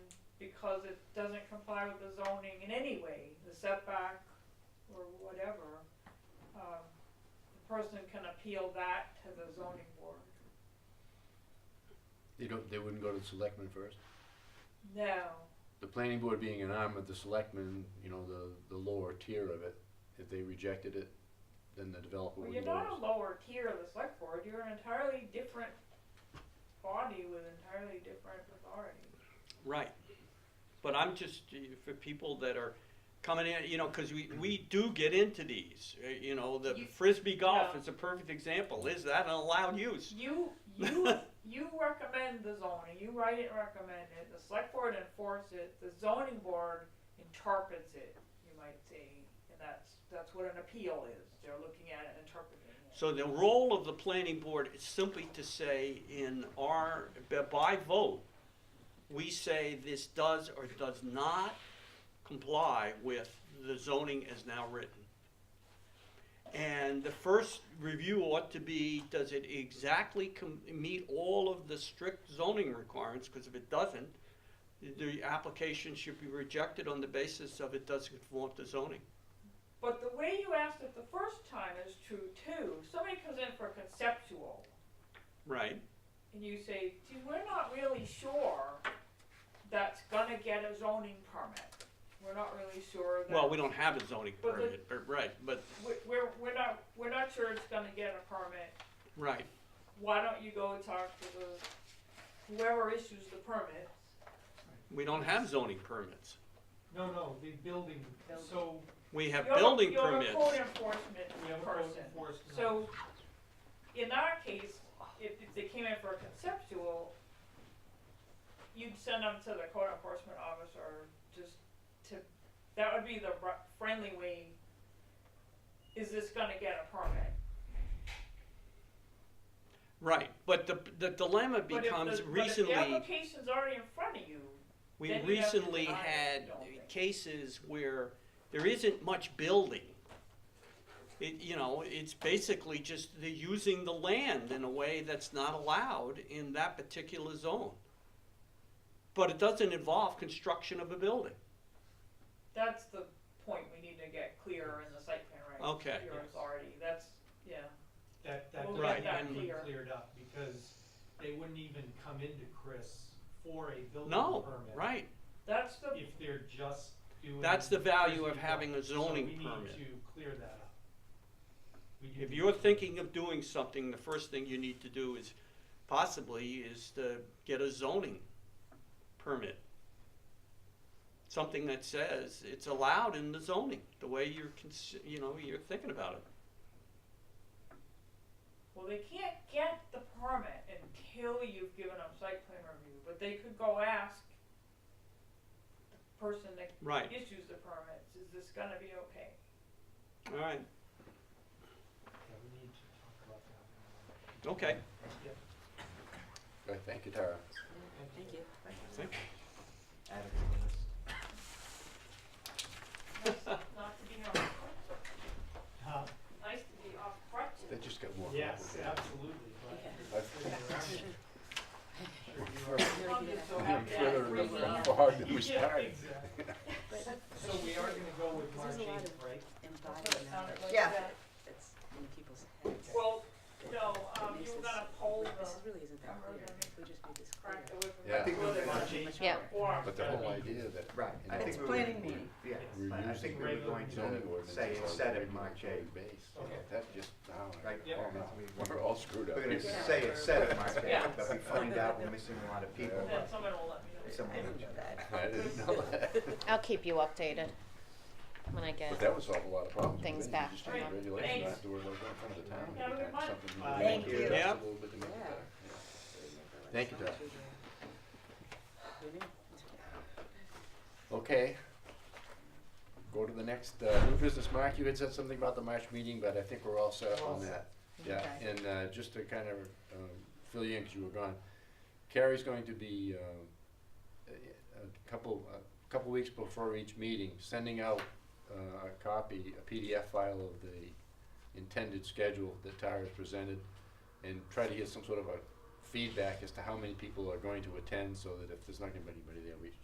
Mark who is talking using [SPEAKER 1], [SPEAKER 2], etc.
[SPEAKER 1] because it doesn't comply with the zoning in any way, the setback or whatever, um, the person can appeal that to the zoning board.
[SPEAKER 2] They don't, they wouldn't go to the selectmen first?
[SPEAKER 1] No,
[SPEAKER 2] The planning board being an arm of the selectmen, you know, the, the lower tier of it, if they rejected it, then the developer
[SPEAKER 1] well,
[SPEAKER 2] would
[SPEAKER 1] you're
[SPEAKER 2] lose.
[SPEAKER 1] not a lower tier of the select board, you're an entirely different body with entirely different authority.
[SPEAKER 3] Right. But I'm just, uh, for people that are coming in, you know, because we, we do get into these, uh, you know, the
[SPEAKER 1] You-
[SPEAKER 3] frisbee golf
[SPEAKER 1] Yeah.
[SPEAKER 3] is a perfect example. Is that an allowed use?
[SPEAKER 1] You, you, you recommend the zoning, you write it, recommend it, the select board enforces it, the zoning board interprets it, you might say. And that's, that's what an appeal is, they're looking at it and interpreting it.
[SPEAKER 3] So the role of the planning board is simply to say in our, by- by vote, we say this does or does not comply with the zoning as now written. And the first review ought to be, does it exactly com- meet all of the strict zoning requirements? Because if it doesn't, the application should be rejected on the basis of it doesn't conform to zoning.
[SPEAKER 1] But the way you asked it the first time is true too. Somebody comes in for conceptual
[SPEAKER 3] Right.
[SPEAKER 1] and you say, gee, we're not really sure that's gonna get a zoning permit. We're not really sure that.
[SPEAKER 3] Well, we don't have a zoning
[SPEAKER 1] But the-
[SPEAKER 3] permit, but, right, but,
[SPEAKER 1] we- We're, we're not, we're not sure it's gonna get a permit.
[SPEAKER 3] right.
[SPEAKER 1] why don't you go talk to the, whoever issues the permit?
[SPEAKER 3] We don't have zoning permits.
[SPEAKER 4] No, no, the building,
[SPEAKER 1] Building.
[SPEAKER 4] so
[SPEAKER 3] We have
[SPEAKER 1] You're the-
[SPEAKER 3] building
[SPEAKER 1] You're the code
[SPEAKER 3] permits.
[SPEAKER 4] we have
[SPEAKER 1] enforcement
[SPEAKER 4] a code
[SPEAKER 1] person,
[SPEAKER 4] enforcement.
[SPEAKER 1] so, in our case, if, if they came in for a conceptual, you'd send them to the code enforcement officer, just to, that would be the ru- friendly way, is this gonna get a permit?
[SPEAKER 3] Right, but the, the dilemma
[SPEAKER 1] But if
[SPEAKER 3] becomes
[SPEAKER 1] the- But if the
[SPEAKER 3] recently,
[SPEAKER 1] application's already in front of you,
[SPEAKER 3] we
[SPEAKER 1] then you have to
[SPEAKER 3] recently
[SPEAKER 1] deny it,
[SPEAKER 3] had
[SPEAKER 1] don't they?
[SPEAKER 3] cases where there isn't much building. It, you know, it's basically just the using the land in a way that's not allowed in that particular zone. But it doesn't involve construction of a building.
[SPEAKER 1] That's the point we need to get clear in the site plan, right?
[SPEAKER 3] Okay.
[SPEAKER 1] Your
[SPEAKER 4] Yes.
[SPEAKER 1] authority, that's, yeah,
[SPEAKER 4] That, that
[SPEAKER 1] We'll
[SPEAKER 3] get
[SPEAKER 4] doesn't
[SPEAKER 3] that
[SPEAKER 4] have to be
[SPEAKER 1] clear.
[SPEAKER 4] cleared up, because they wouldn't even come into Chris for a building permit.
[SPEAKER 3] No, right,
[SPEAKER 1] that's the,
[SPEAKER 4] If they're just doing.
[SPEAKER 3] That's the value of
[SPEAKER 4] frisbee
[SPEAKER 3] having a
[SPEAKER 4] golf. So
[SPEAKER 3] zoning
[SPEAKER 4] we
[SPEAKER 3] permit.
[SPEAKER 4] need to clear that up. We do
[SPEAKER 3] If
[SPEAKER 4] need
[SPEAKER 3] you're
[SPEAKER 4] to-
[SPEAKER 3] thinking of doing something, the first thing you need to do is possibly is to get a zoning permit. Something that says it's allowed in the zoning, the way you're, cons- you know, you're thinking about it.
[SPEAKER 1] well, they can't get the permit until you've given them site plan review, but they could go ask the person that
[SPEAKER 3] Right,
[SPEAKER 1] issues the permits, is this gonna be okay?
[SPEAKER 3] all right,
[SPEAKER 4] Yeah, we need to talk about that.
[SPEAKER 3] okay.
[SPEAKER 2] Right, thank you, Tara.
[SPEAKER 5] Thank you.
[SPEAKER 3] Thank-
[SPEAKER 1] Nice Not to be off,
[SPEAKER 4] Huh,
[SPEAKER 1] nice to be off crutches.
[SPEAKER 2] That just got more
[SPEAKER 4] Uh, Yes,
[SPEAKER 2] complicated.
[SPEAKER 4] absolutely, but. Sure you are.
[SPEAKER 2] Further-
[SPEAKER 5] You're gonna
[SPEAKER 1] I'm
[SPEAKER 5] get
[SPEAKER 1] just so
[SPEAKER 5] it.
[SPEAKER 1] happy I
[SPEAKER 2] further
[SPEAKER 1] agree with that.
[SPEAKER 2] apart than we
[SPEAKER 4] Yeah,
[SPEAKER 2] started.
[SPEAKER 4] exactly.
[SPEAKER 5] But
[SPEAKER 4] So we are gonna go with March
[SPEAKER 5] There's a lot
[SPEAKER 4] eighth,
[SPEAKER 5] of-
[SPEAKER 4] right?
[SPEAKER 1] That's what it sounded
[SPEAKER 5] embodied knowledge
[SPEAKER 1] like.
[SPEAKER 6] Yeah.
[SPEAKER 1] that.
[SPEAKER 5] that's in people's heads.
[SPEAKER 1] Well, no,
[SPEAKER 5] that
[SPEAKER 1] um,
[SPEAKER 5] makes
[SPEAKER 1] you were
[SPEAKER 5] this-
[SPEAKER 1] gonna poll
[SPEAKER 5] like,
[SPEAKER 1] the
[SPEAKER 5] This really isn't that
[SPEAKER 1] cover
[SPEAKER 5] clear,
[SPEAKER 1] them.
[SPEAKER 5] if we just made this clear.
[SPEAKER 1] crack away from.
[SPEAKER 2] Yeah. I
[SPEAKER 6] think we
[SPEAKER 1] Well, they
[SPEAKER 6] were
[SPEAKER 1] wanna
[SPEAKER 6] gonna-
[SPEAKER 1] change
[SPEAKER 6] Yeah.
[SPEAKER 1] the form.
[SPEAKER 2] But the whole idea that.
[SPEAKER 6] Right. I
[SPEAKER 2] Yeah.
[SPEAKER 6] think
[SPEAKER 2] It's
[SPEAKER 6] we were-
[SPEAKER 5] planning meeting.
[SPEAKER 6] Yeah,
[SPEAKER 4] We're
[SPEAKER 6] but I
[SPEAKER 2] using
[SPEAKER 6] think we were
[SPEAKER 4] regular
[SPEAKER 6] going
[SPEAKER 2] zoning
[SPEAKER 6] to
[SPEAKER 2] ordinances
[SPEAKER 6] say
[SPEAKER 2] on
[SPEAKER 6] instead of
[SPEAKER 2] regulatory
[SPEAKER 6] March eighth.
[SPEAKER 2] Base,
[SPEAKER 4] Okay.
[SPEAKER 2] that just, I
[SPEAKER 6] Right,
[SPEAKER 2] don't
[SPEAKER 4] yeah.
[SPEAKER 2] know, Oh, no. we're all screwed up.
[SPEAKER 6] We're gonna
[SPEAKER 5] Yeah.
[SPEAKER 6] say instead of March
[SPEAKER 1] Yeah.
[SPEAKER 6] eighth, but we find out we're missing a lot of people.
[SPEAKER 1] Then someone will let me know.
[SPEAKER 6] Someone
[SPEAKER 5] I remember that.
[SPEAKER 2] I didn't know that.
[SPEAKER 7] I'll keep you updated when I get.
[SPEAKER 2] But that would solve a lot of problems.
[SPEAKER 7] Things
[SPEAKER 2] You
[SPEAKER 7] back
[SPEAKER 2] just
[SPEAKER 7] from
[SPEAKER 2] change
[SPEAKER 7] them.
[SPEAKER 2] regulation, not
[SPEAKER 1] Thanks.
[SPEAKER 2] have to worry about going in front of the town.
[SPEAKER 1] Have a good
[SPEAKER 2] Something
[SPEAKER 1] month.
[SPEAKER 2] you
[SPEAKER 4] Uh,
[SPEAKER 2] can
[SPEAKER 4] Thank
[SPEAKER 2] do
[SPEAKER 6] you.
[SPEAKER 2] just
[SPEAKER 3] Yeah.
[SPEAKER 2] A little bit to make it
[SPEAKER 5] Yeah.
[SPEAKER 2] better. Yeah. Thank you, Doc. Okay. Go to the next, uh, new business, Mark, you had said something about the March meeting, but I think we're all set
[SPEAKER 4] We're all
[SPEAKER 2] on that.
[SPEAKER 4] set.
[SPEAKER 2] Yeah,
[SPEAKER 5] Okay.
[SPEAKER 2] and, uh, just to kind of, um, fill you in, cause you were gone, Carrie's going to be, um, a, a couple, a couple weeks before each meeting, sending out, uh, a copy, a PDF file of the intended schedule that Tara's presented, and try to get some sort of a feedback as to how many people are going to attend, so that if there's not gonna be anybody there, we